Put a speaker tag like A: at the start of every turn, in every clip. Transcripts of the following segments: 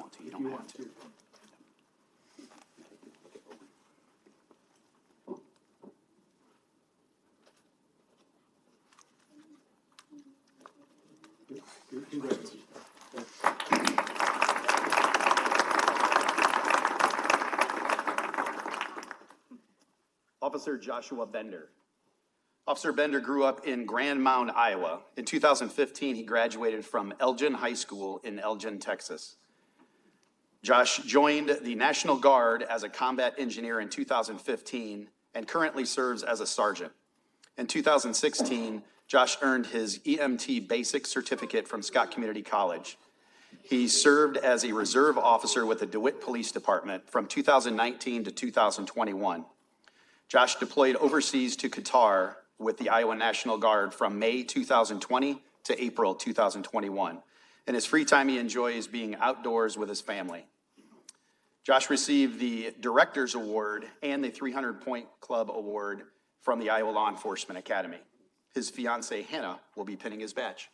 A: you want to. Congrats.
B: Officer Joshua Bender. Officer Bender grew up in Grand Mound, Iowa. In 2015, he graduated from Elgin High School in Elgin, Texas. Josh joined the National Guard as a combat engineer in 2015 and currently serves as a sergeant. In 2016, Josh earned his EMT Basic Certificate from Scott Community College. He served as a reserve officer with the DeWitt Police Department from 2019 to 2021. Josh deployed overseas to Qatar with the Iowa National Guard from May 2020 to April 2021. In his free time, he enjoys being outdoors with his family. Josh received the Director's Award and the 300 Point Club Award from the Iowa Law Enforcement Academy. His fiancee Hannah will be pinning his badge.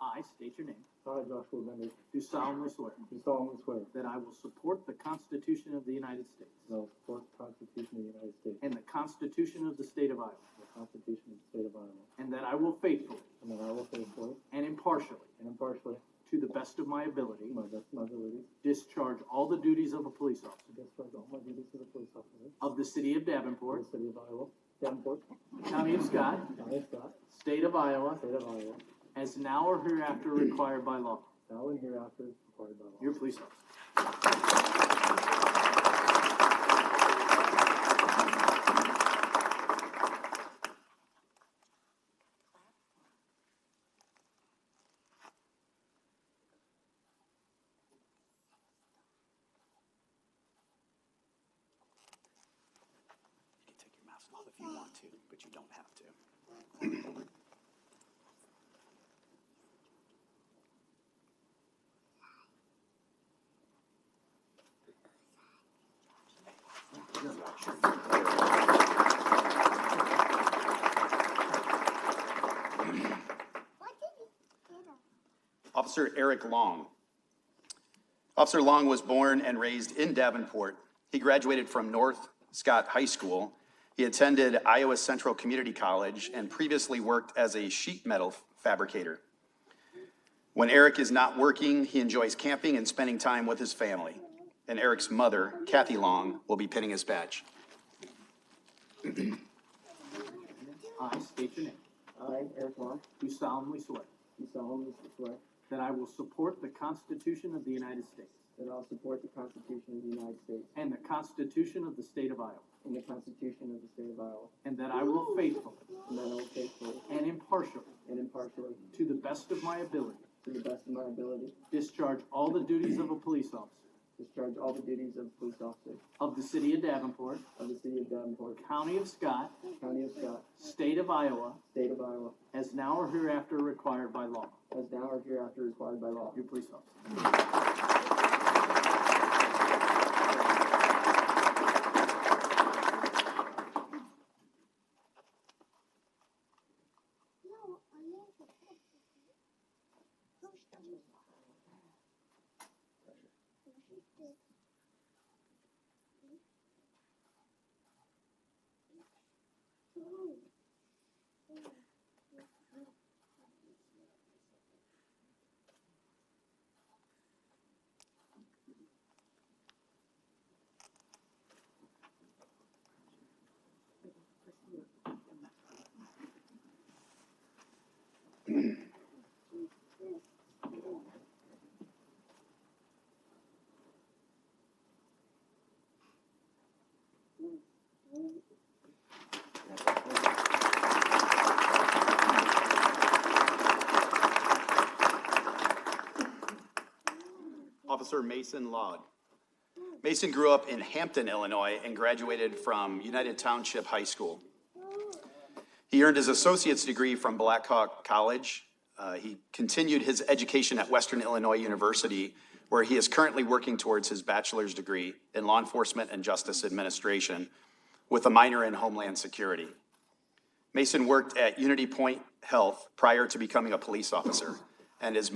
A: I state your name.
C: I, Joshua Bender,
A: Do solemnly swear
C: do solemnly swear
A: that I will support the Constitution of the United States
C: that I will support the Constitution of the United States
A: and the Constitution of the State of Iowa,
C: and the Constitution of the State of Iowa,
A: and that I will faithfully
C: and that I will faithfully
A: and impartially,
C: and impartially,
A: to the best of my ability,
C: to my best of my ability,
A: discharge all the duties of a police officer
C: discharge all my duties as a police officer
A: of the City of
C: for
A: Davenport,
C: the City of Iowa, Davenport,
A: County of Scott,
C: County of Scott,
A: State of Iowa,
C: State of Iowa,
A: as now or hereafter required by law.
C: now and hereafter as required by law.
A: Your police officer.
B: You can take your mask off if you want to, but you don't have to.
D: What did he get him?
B: Officer Eric Long. Officer Long was born and raised in Davenport. He graduated from North Scott High School. He attended Iowa Central Community College and previously worked as a sheet metal fabricator. When Eric is not working, he enjoys camping and spending time with his family. And Eric's mother, Kathy Long, will be pinning his badge.
A: I state your name.
C: I, Eric Long,
A: Do solemnly swear
C: do solemnly swear
A: that I will support the Constitution of the United States
C: that I will support the Constitution of the United States
A: and the Constitution of the State of Iowa,
C: and the Constitution of the State of Iowa,
A: and that I will faithfully
C: and that I will faithfully
A: and impartially,
C: and impartially,
A: to the best of my ability,
C: to the best of my ability,
A: discharge all the duties of a police officer
C: discharge all the duties of police officer
A: of the City of Davenport,
C: of the City of Davenport,
A: County of Scott,
C: County of Scott,
A: State of Iowa,
C: State of Iowa,
A: as now or hereafter required by law.
C: as now or hereafter required by law.
A: Your police officer.
D: No, I need to. Who's the Who's the Ooh.
B: Officer Mason Log. Mason grew up in Hampton, Illinois, and graduated from United Township High School. He earned his associate's degree from Black Hawk College. Uh, he continued his education at Western Illinois University, where he is currently working towards his bachelor's degree in law enforcement and justice administration with a minor in homeland security. Mason worked at Unity Point Health prior to becoming a police officer, and is